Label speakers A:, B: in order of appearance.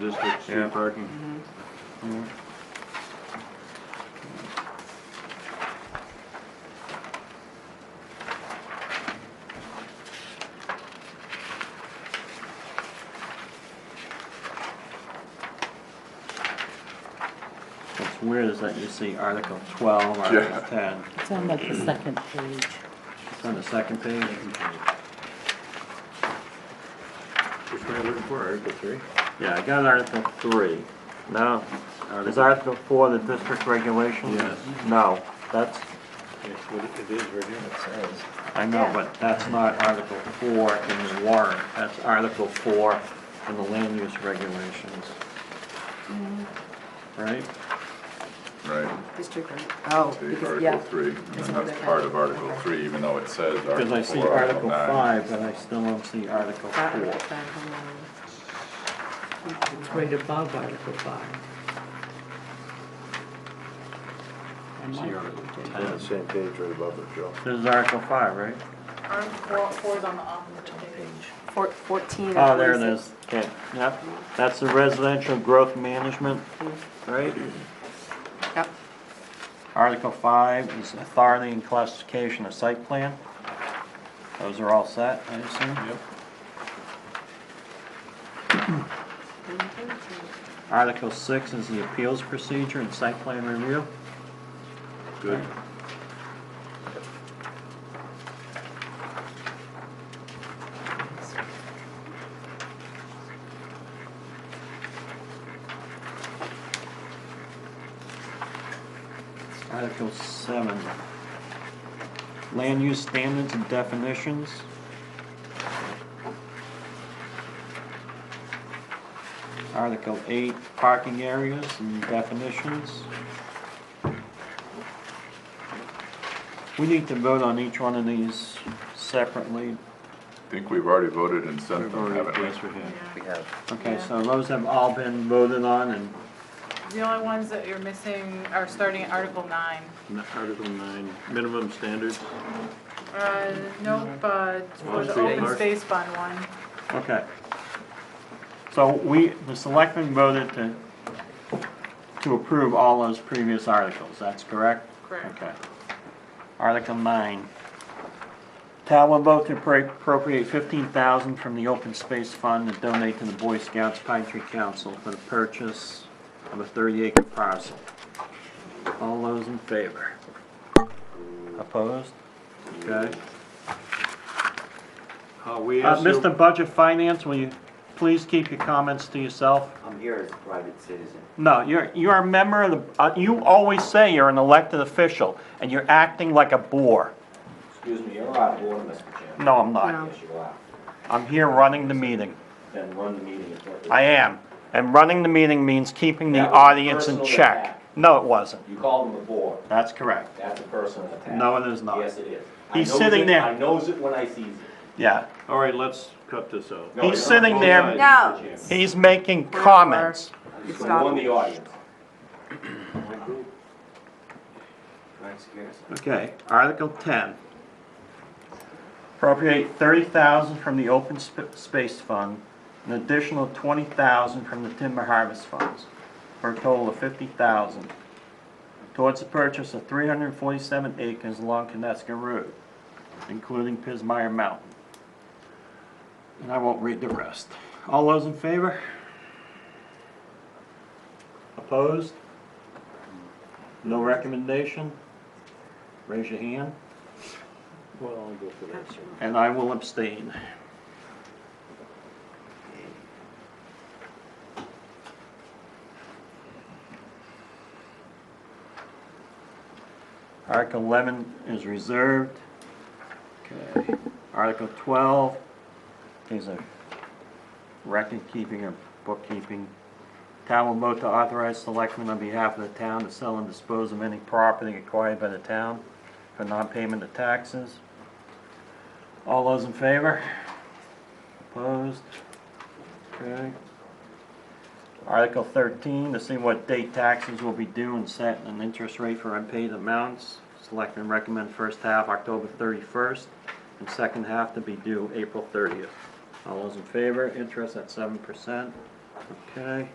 A: District
B: Yeah.
A: street parking.
C: What's weird is that you see Article twelve, Article
B: Yeah.
C: ten,
D: It's on like the second page.
C: it's on the second page.
A: Which one are you looking for, Article three?
C: Yeah, I got Article three. Now, is Article four the district regulation?
A: Yes.
C: No, that's,
A: It's what it- it is right here.
C: I know, but that's not Article four in the warrant, that's Article four in the land use regulations. Right?
B: Right,
E: District, oh,
B: the
E: because,
B: Article
E: yeah.
B: three, and
E: It's
B: then that's
E: another
B: part of
E: thing.
B: Article three, even though it says Article
C: Because I see
B: four, Article
C: Article
B: nine.
C: five, but I still don't see Article
E: That
C: four.
E: was that whole-
D: It's right above Article five. And
C: See
D: like,
C: Article
A: On the
C: 10.
A: same page right above it, Joe.
C: This is Article five, right?
F: Article four, four's on the opposite page.
E: four- Fourteen and
C: Oh, there it
E: forty-six.
C: is, okay, yep, that's the residential growth management, right?
E: Yep,
C: Article five is authority and classification of site plan. Those are all set, I assume? Yep. Article six is the appeals procedure and site plan review.
A: Good.
C: Article seven, land use standards and definitions. Article eight, parking areas and definitions. We need to vote on each one of these separately.
B: I think we've already voted and sent
A: We've
B: them,
A: already-
B: haven't we?
A: yes, we have.
C: Okay, so those have all been voted on and
F: The only ones that you're missing are starting at Article nine.
A: N- Article nine, minimum standards.
F: Uh, nope, uh, for
A: Open
F: the
A: space.
F: open space fund one.
C: Okay. So we, the selectmen voted to, to approve all those previous articles, that's correct?
F: Correct.
C: Okay. Article nine. Town will vote to appro- appropriate fifteen thousand from the open space fund and donate to the Boy Scouts Pine Tree Council for the purchase of a thirty acre parcel. All those in favor? Opposed? Okay.
A: Uh, we
C: Uh,
A: asked. you-
C: Mr. Budget Finance, will you please keep your comments to yourself?
G: I'm here as a private citizen.
C: No, you're, you're a member of the, uh, you always say you're an elected official, and you're acting like a bore.
G: Excuse me, you're out of order, Mr. Chairman.
C: No, I'm not.
G: Yes, you are.
C: I'm here running the meeting.
G: Then run the meeting appropriately.
C: I am. And running the meeting means keeping the
G: That was a
C: audience in
G: personal
C: check.
G: attack.
C: No, it wasn't.
G: You called him a bore.
C: That's correct.
G: That's a personal attack.
C: No, it is not.
G: Yes, it is. I
C: He's
G: knows
C: sitting
G: it-
C: there.
G: I knows it when I sees it.
C: Yeah.
A: All right, let's cut this out.
G: No,
C: He's
G: you're
C: sitting
G: wrong,
C: there-
G: Mr.
E: No.
G: Chairman.
C: He's making comments.
G: You
E: It's
G: should
E: not-
G: warn the audience. Can I secure this?
C: Okay, Article ten. Appropriate thirty thousand from the open sp- space fund, an additional twenty thousand from the timber harvest funds, for a total of fifty thousand. Towards the purchase of three hundred and forty-seven acres along Kineska Road, including Pismire Mountain. And I won't read the rest. All those in favor? Opposed? No recommendation? Raise your hand,
A: Well, I'll go for that.
C: and I will abstain. Article eleven is reserved. Okay. Article twelve is a record-keeping or bookkeeping. Town will vote to authorize selectmen on behalf of the town to sell and dispose of any property acquired by the town for non-payment of taxes. All those in favor? Opposed? Okay. Article thirteen, to see what date taxes will be due and set an interest rate for unpaid amounts. Selectmen recommend first half October thirty-first and second half to be due April thirtieth. All those in favor, interest at seven percent. Okay.